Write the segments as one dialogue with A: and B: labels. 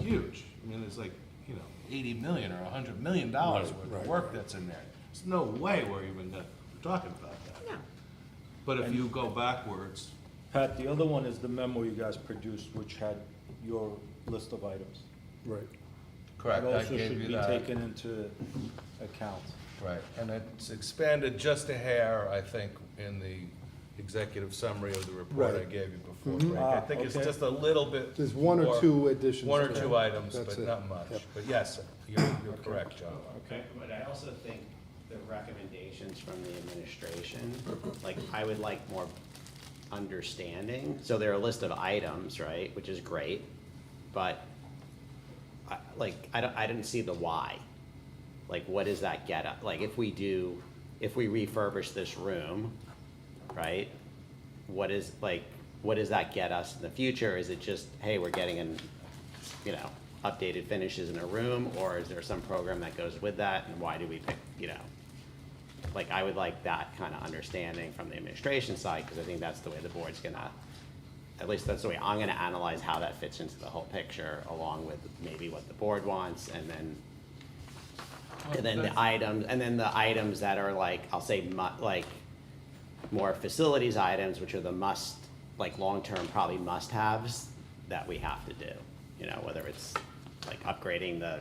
A: huge. I mean, it's like, you know, eighty million or a hundred million dollars
B: Right,
A: worth
B: right,
A: of work that's in there. There's no way we're even gonna, we're talking about that.
C: No,
A: But if you go backwards,
D: Pat, the other one is the memo you guys produced, which had your list of items.
B: Right.
A: correct, I
D: also
A: gave
D: should
A: you
D: be
A: that.
D: taken into account.
A: Right, and it's expanded just a hair, I think, in the executive summary of the report I
B: Right.
A: gave you before,
B: Mhm.
A: Frank. I
D: Ah,
A: think it's
D: okay.
A: just a little bit.
B: There's one or
A: more-
B: two additions
A: One or
B: to
A: two
B: that.
A: items,
B: That's
A: but
B: it.
A: not much.
B: Yep.
A: But yes, you're, you're correct, John.
C: okay, but I also think the recommendations from the administration, like, I would like more understanding. So there are a list of items, right, which is great, but I, like, I don't, I didn't see the why. Like, what does that get up? Like, if we do, if we refurbish this room, right? What is, like, what does that get us in the future? Is it just, hey, we're getting an, you know, updated finishes in a room? Or is there some program that goes with that and why do we pick, you know? Like, I would like that kind of understanding from the administration side, because I think that's the way the board's gonna, at least that's the way I'm gonna analyze how that fits into the whole picture, along with maybe what the board wants, and then, and then the items, and then the items that are like, I'll say mu- like, more facilities items, which are the must, like, long-term probably must-haves that we have to do. You know, whether it's like upgrading the,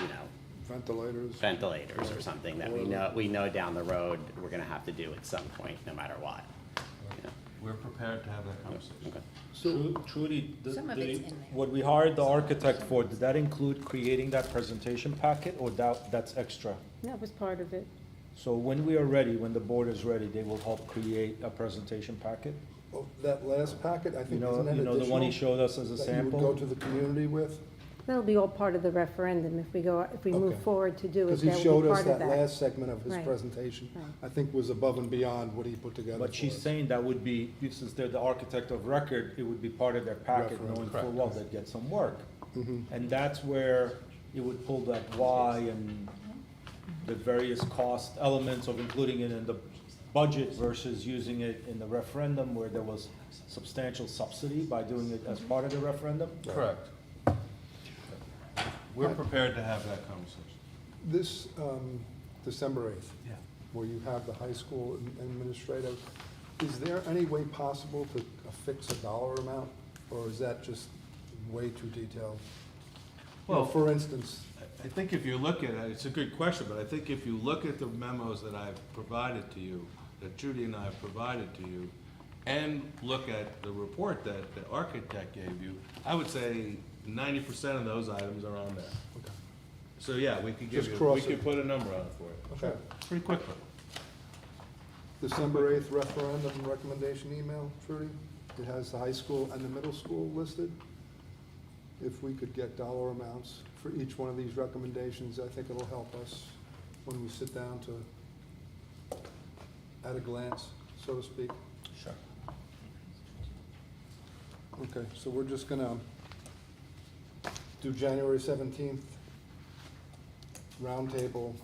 C: you know,
B: Ventilators.
C: ventilators or something that we know, we know down the road, we're gonna have to do at some point, no matter what. You know?
A: We're prepared to have that conversation.
D: Tru- Trudy, the,
E: Some of
D: the-
E: it's in there.
D: what we hired the architect for, did that include creating that presentation packet or that, that's extra?
F: That was part of it.
D: So when we are ready, when the board is ready, they will help create a presentation packet?
B: Oh, That last packet, I
D: You
B: think,
D: know,
B: isn't that
D: you know, the one he
B: additional?
D: showed us as a
B: That you would go to
D: sample?
B: the community with?
F: That'll be all part of the referendum if we go, if we move
B: Okay.
F: forward to do it.
B: Because he
F: that will
B: showed
F: be
B: us
F: part of
B: that last segment of his
F: Right.
B: presentation,
F: Right.
B: I think was above and beyond what he put together for
D: But she's
B: us.
D: saying that would be, since they're the architect of record, it would be part of their packet,
B: Reference, Mm-hmm.
D: knowing
A: correct.
D: full well they'd get some work. And that's where you would pull that why and the various cost elements of including it in the budget versus using it in the referendum where there was substantial subsidy by doing it as part of the referendum.
A: Correct. We're prepared to have that conversation.
B: This, um, December eighth,
A: Yeah.
B: where you have the high school ad- administrative, is there any way possible to affix a dollar amount? Or is that just way too detailed? You know,
A: Well-
B: For instance,
A: I- I think if you look at it, it's a good question, but I think if you look at the memos that I've provided to you, that Judy and I have provided to you, and look at the report that the architect gave you, I would say ninety percent of those items are on there.
B: okay,
A: So, yeah, we could give
B: Just
A: you, we
B: cross it.
A: could put a number on it for you,
B: okay.
A: pretty quickly.
B: December eighth referendum recommendation email, Trudy. It has the high school and the middle school listed. If we could get dollar amounts for each one of these recommendations, I think it'll help us when we sit down to, at a glance, so to speak.
A: Sure.
B: Okay, so we're just gonna do January seventeenth, roundtable,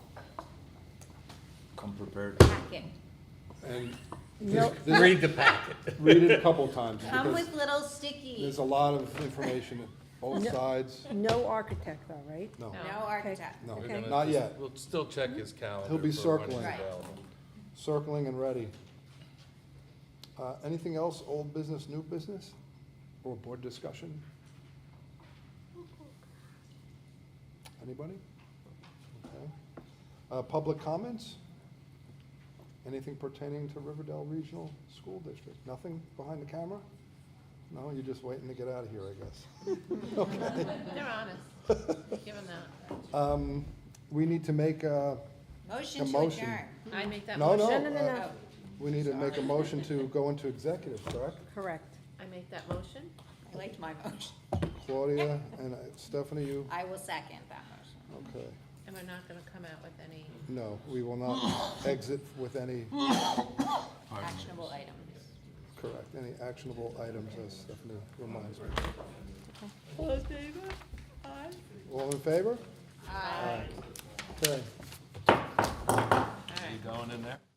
D: Come prepared.
E: packet.
B: and
F: No.
B: read the packet. Read it a couple times.
E: Come
B: because-
E: with little sticky.
B: There's a lot of information, both
F: No.
B: sides,
F: that. No architect though, right?
B: no,
E: No architect.
B: no,
F: We're gonna
B: not yet,
A: We'll still check his calendar.
B: He'll be
A: for when he's
B: circling.
E: Right.
A: available.
B: circling and ready. Uh, anything else, old business, new business, or board discussion? Anybody? Okay. Uh, public comments? Anything pertaining to Riverdale Regional School District? Nothing behind the camera? No, you're just waiting to get out of here, I guess.
E: They're honest. Give them that.
B: Um, we need to make a, A
E: Motion to
B: motion.
E: adjourn. Oh, I make that
B: no, no.
F: No, no, no,
B: uh,
F: no,
B: We need to make a motion to go into executive, correct?
F: correct.
G: I make that motion?
E: I liked my motion.
B: Claudia and I- Stephanie, you,
E: I will second that motion.
B: okay.
G: And we're not gonna come out with any
B: No, we will not exit with any,
E: Actionable items.
B: correct, any actionable items, as Stephanie reminds me. All in favor? Aye. Okay.
A: You going in there?